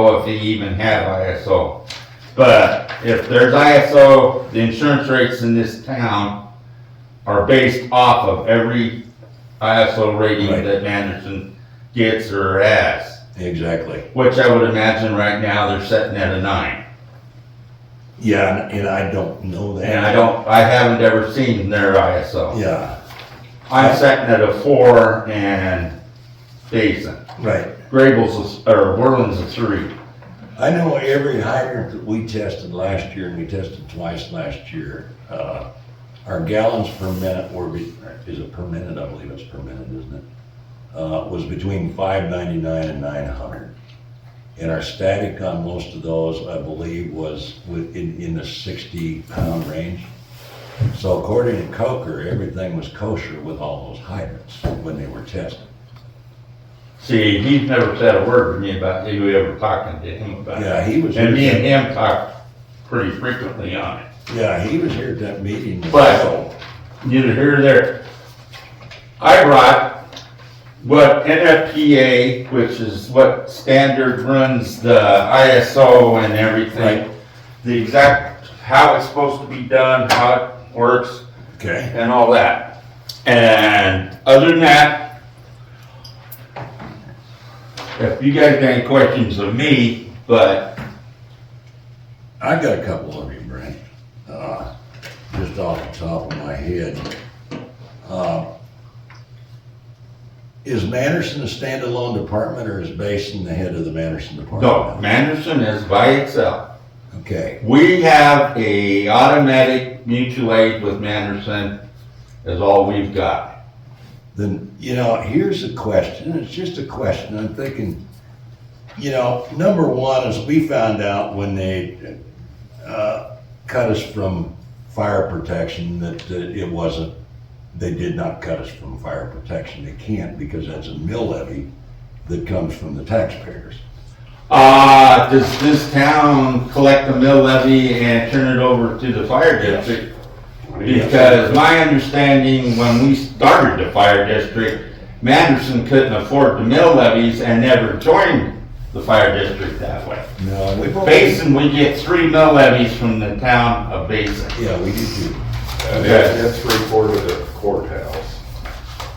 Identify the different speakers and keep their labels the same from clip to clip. Speaker 1: know if they even have ISO. But if there's ISO, the insurance rates in this town are based off of every ISO rating
Speaker 2: Right.
Speaker 1: that Anderson gets or has,
Speaker 2: Exactly.
Speaker 1: which I would imagine right now they're setting at a nine.
Speaker 2: Yeah, and- and I don't know that.
Speaker 1: And I don't, I haven't ever seen their ISO.
Speaker 2: Yeah,
Speaker 1: I'm setting at a four and decent.
Speaker 2: right.
Speaker 1: Grable's, a- or Worland's a three.
Speaker 2: I know every hydrant that we tested last year, and we tested twice last year, uh, our gallons per minute were, be- is it per minute? I believe it's per minute, isn't it? Uh, was between five ninety-nine and nine hundred. And our static on most of those, I believe, was within, in the sixty pound range. So according to Coker, everything was kosher with all those hydrants when they were tested.
Speaker 1: See, he's never said a word to me about you ever talking to him about it.
Speaker 2: Yeah, he was.
Speaker 1: And me
Speaker 2: here-
Speaker 1: and him talk pretty frequently on it.
Speaker 2: Yeah, he was here at that meeting.
Speaker 1: But- Neither here nor there. I brought what NFPA, which is what standard runs the ISO and
Speaker 2: Right.
Speaker 1: everything. The exact, how it's supposed to be done, how it works,
Speaker 2: Okay.
Speaker 1: and all that. And other than that, if you guys got any questions of me, but
Speaker 2: I got a couple of you, Brent, uh, just off the top of my head. Uh, Is Manderson a standalone department or is Basin the head of the Manderson
Speaker 1: no,
Speaker 2: department?
Speaker 1: Manderson is by itself.
Speaker 2: Okay,
Speaker 1: We have a automatic mutual aid with Manderson is all we've got.
Speaker 2: then, you know, here's a question, it's just a question, I'm thinking, you know, number one is we found out when they, uh, cut us from fire protection that that it wasn't they did not cut us from fire protection. They can't because that's a mill levy that comes from the taxpayers.
Speaker 1: Uh, does this town collect the mill levy and turn it over to the fire district? Because my understanding, when we started the fire district, Manderson couldn't afford the mill levies and never joined the fire district that way.
Speaker 2: No, we
Speaker 1: Basin, we get three mill levies from the town of Basin.
Speaker 2: Yeah, we do too.
Speaker 3: And that- that's three quarter of the courthouse.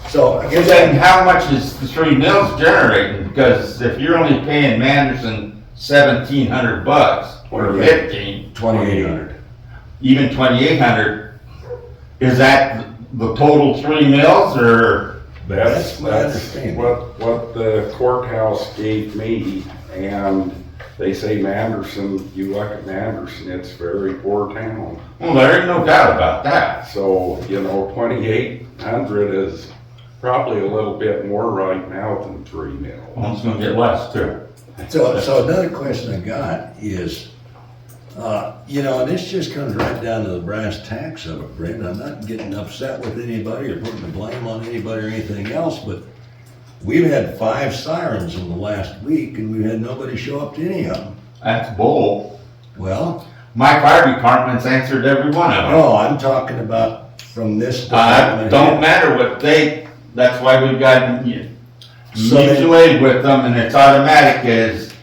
Speaker 2: So I
Speaker 1: And
Speaker 2: guess
Speaker 1: then
Speaker 2: that,
Speaker 1: how much is the three mills generating? Because if you're only paying Manderson seventeen hundred bucks or
Speaker 3: Twenty-eight.
Speaker 1: fifteen,
Speaker 2: twenty-eight hundred.
Speaker 1: even twenty-eight hundred, is that the total three mills or?
Speaker 2: That's
Speaker 3: That's,
Speaker 2: my
Speaker 3: that's
Speaker 2: understanding.
Speaker 3: what, what the courthouse gave me, and they say Manderson, you look at Manderson, it's very poor town.
Speaker 1: Well, there ain't no doubt about that.
Speaker 3: So, you know, twenty-eight hundred is probably a little bit more right now than three mil.
Speaker 1: Well, it's gonna get less too.
Speaker 2: So, so another question I got is, uh, you know, and this just comes right down to the brass tacks of it, Brent. I'm not getting upset with anybody or putting the blame on anybody or anything else, but we've had five sirens in the last week and we've had nobody show up to any of them.
Speaker 1: That's bull.
Speaker 2: Well,
Speaker 1: My fire department's answered every one of them.
Speaker 2: no, I'm talking about from this
Speaker 1: Uh,
Speaker 2: department.
Speaker 1: don't matter what they, that's why we've got mu-
Speaker 2: So they-
Speaker 1: mutual aid with them and it's automatic is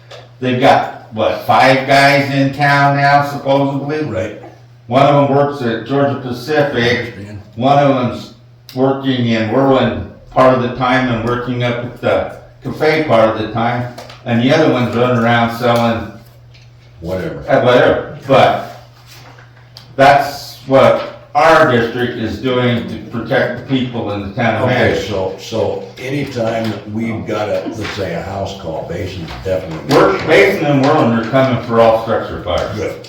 Speaker 1: they've got, what, five guys in town now supposedly?
Speaker 2: Right,
Speaker 1: One of them works at Georgia
Speaker 2: I
Speaker 1: Pacific,
Speaker 2: understand.
Speaker 1: one of them's working in Whirlwind part of the time and working up at the cafe part of the time. And the other one's running around selling
Speaker 2: Whatever.
Speaker 1: at whatever, but that's what our district is doing to protect the people in the town of
Speaker 2: Okay,
Speaker 1: Madison.
Speaker 2: so, so anytime that we've got a, let's say, a house call, Basin's definitely.
Speaker 1: We're, Basin and Worland are coming for all structure fires.
Speaker 2: Good,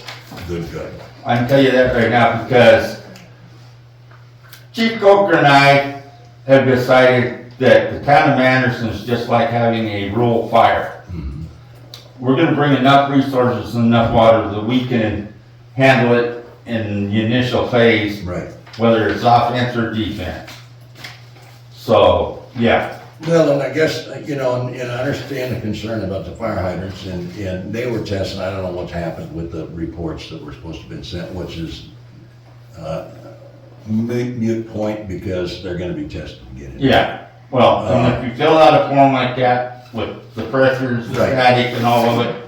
Speaker 2: good, good.
Speaker 1: I can tell you that right now because Chief Coker and I have decided that the town of Anderson is just like having a rural fire. We're gonna bring enough resources and enough water that we can handle it in the initial phase
Speaker 2: Right.
Speaker 1: whether it's offense or defense. So, yeah,
Speaker 2: Well, and I guess, you know, and and I understand the concern about the fire hydrants and, and they were testing, I don't know what's happened with the reports that were supposed to have been sent, which is, uh, mute, mute point because they're gonna be tested again.
Speaker 1: yeah. Well, and if you fill out a form like that with the pressures, the
Speaker 2: Right.
Speaker 1: static and all of it,